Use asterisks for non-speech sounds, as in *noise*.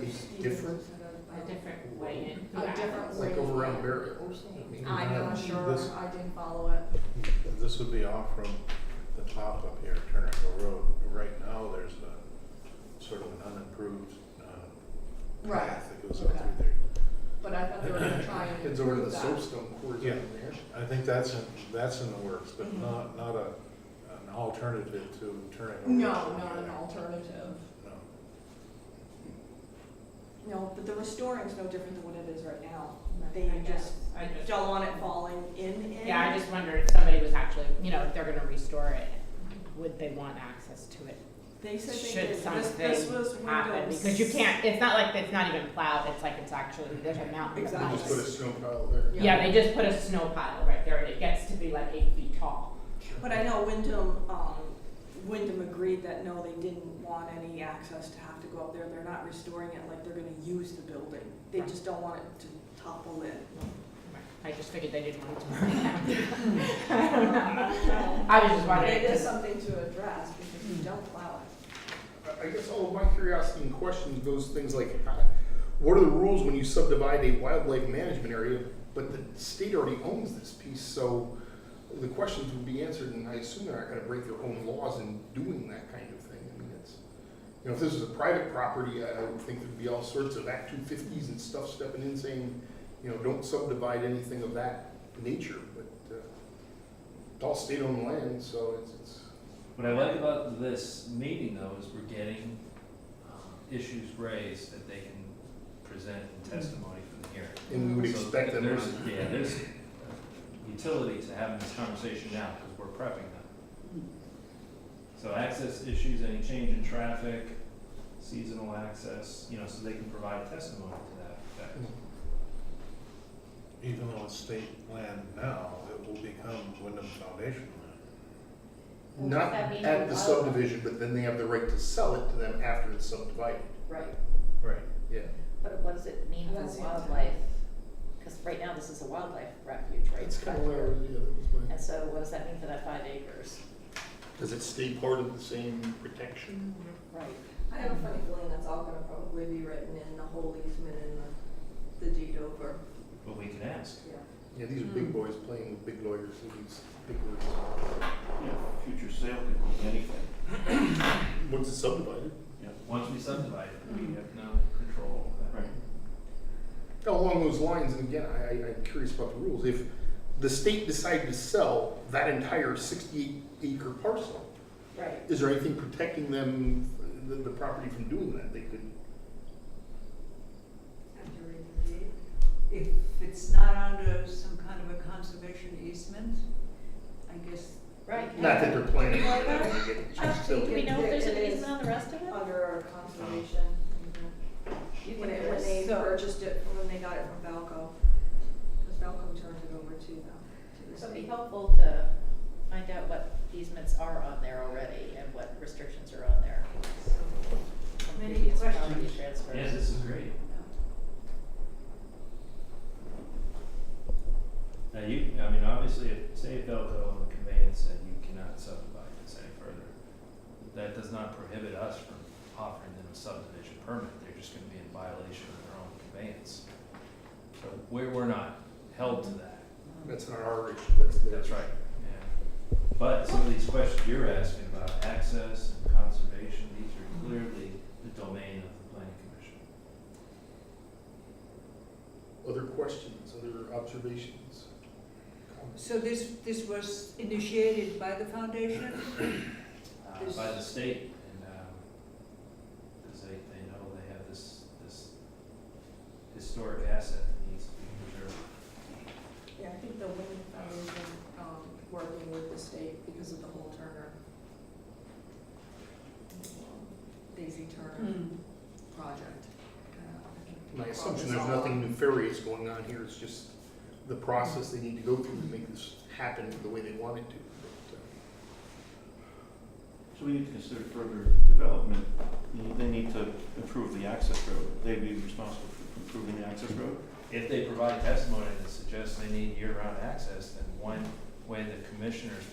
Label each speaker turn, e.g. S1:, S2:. S1: these different?
S2: a different way in.
S3: A different way.
S1: Like over around Barry Olson? mean,
S3: I know, I'm sure,
S4: This-
S3: I didn't follow it.
S4: This would be off from the top up here, Turnerville Road. Right now, there's a sort of an unimproved uh,
S3: Right,
S4: path that goes up
S3: okay.
S4: through there.
S3: but I thought they were gonna try and
S1: Heads over to
S3: improve
S1: the
S3: that.
S1: soapstone quarries
S4: Yeah.
S1: over there.
S4: I think that's, in- that's in the works, but
S3: Mhm.
S4: not, not a, an alternative to Turnerville. Road.
S3: No, not an alternative.
S4: No.
S3: No, but the restoring's no different than what it is right now. They
S2: Right, I
S3: just
S2: guess, I just,
S3: don't want it falling in, in.
S2: yeah, I just wondered if somebody was actually, you know, if they're gonna restore it, would they want access to it?
S3: They said they
S2: Should
S3: did, this, this was
S2: something happen,
S3: windows.
S2: because you can't, it's not like it's not even plowed, it's like it's actually, there's a mountain of
S3: Exactly.
S1: Just put a
S2: ice.
S1: snow pile there.
S3: Yeah.
S2: Yeah, they just put a snow pile right there, and it gets to be like eight feet tall.
S3: But I know Wyndham, um, Wyndham agreed that no, they didn't want any access to have to go up there. They're not restoring it like they're gonna use the building. They just don't want it to topple in.
S2: I just figured they didn't want it to. *laughs* I don't know. I was just
S3: But
S2: wondering,
S3: it is
S2: 'cause-
S3: something to address because you don't plow it.
S1: I- I guess all of my curiosity and questions goes things like, how- what are the rules when you subdivide a wildlife management area, but the state already owns this piece, so the questions would be answered, and I assume they're not gonna break their own laws in doing that kind of thing. I mean, it's, you know, if this was a private property, I I would think there'd be all sorts of Act two fifties and stuff stepping in saying, you know, don't subdivide anything of that nature, but, uh, it's all state-owned land, so it's, it's,
S5: What I like about this meeting though is we're getting um, issues raised that they can present in testimony from the hearing.
S1: and we would
S5: So
S1: expect them.
S5: There's,
S1: to-
S5: yeah, there's utility to having this conversation now because we're prepping them. So access issues, any change in traffic, seasonal access, you know, so they can provide testimony to that effect.
S4: Even though it's state land now, it will become Wyndham Foundation land.
S2: Well,
S1: Not
S2: does that mean
S1: at
S2: you
S1: the
S2: love
S1: subdivision, but then they have the right to sell it to them after it's subdivided.
S6: Right,
S4: Right.
S1: Yeah.
S6: but what does it mean
S3: That's
S6: for
S3: the intent.
S6: wildlife? Because right now, this is a wildlife refuge, right?
S1: of where, yeah, that was
S6: And so what does that mean for that five acres?
S1: Does it stay part of the same protection?
S6: Right.
S3: I have a funny feeling that's all gonna probably be written in the whole easement and the, the deed over.
S5: But we can ask.
S1: Yeah, these are
S3: Hmm.
S1: big boys playing with big lawyers and these big words.
S7: Yeah, future sale could be anything.
S1: Once it's subdivided.
S7: Yeah.
S5: Once we subdivide it, we have no control over that.
S7: Right.
S1: Along those lines, and again, I, I- I'm curious about the rules, if the state decided to sell that entire sixty-eight acre parcel,
S6: Right.
S1: is there anything protecting them, the, the property from doing that? They could
S8: After reading the deed, if it's not under some kind of a conservation easement, I guess.
S6: Right.
S1: Not that they're planning on it, I don't wanna get
S8: I
S1: choked up.
S6: Do we know if there's an
S3: It is.
S6: easement on the rest of it?
S3: Under our conservation,
S6: You think
S3: when it, when
S6: there's-
S3: they
S6: so-
S3: purchased it, when they got it from Valco, because Valco turned it over to them, to the
S6: So it'd be
S3: state.
S6: helpful to find out what easements are on there already and what restrictions are on there. from
S8: Many
S6: previous property
S8: questions.
S6: transfers.
S5: Yeah, this is great. Now you, I mean, obviously, if, say if Elko on the conveyance said you cannot subdivide this any further, that does not prohibit us from offering them a subdivision permit, they're just gonna be in violation of their own conveyance. So we're, we're not held to that,
S1: That's not our issue, that's theirs.
S5: that's right, yeah. But some of these questions you're asking about access and conservation, these are clearly the domain of the planning commission.
S1: Other questions, other observations? comments?
S8: So this, this was initiated by the foundation?
S5: uh, by the state, and, um, because they, they know they have this, this historic asset that needs to be preserved.
S3: Yeah, I think the Wyndham Foundation, um, working with the state because of the whole Turner. Daisy Turner
S6: Hmm.
S3: project.
S1: My assumption, there's nothing nefarious going on here, it's just the process they need to go through to make this happen the way they want it to. But, uh,
S7: So we need to consider further development. They- They need to improve the access road. They'd be responsible for improving the access road.
S5: If they provide testimony that suggests they need year-round access, then when, when the commissioners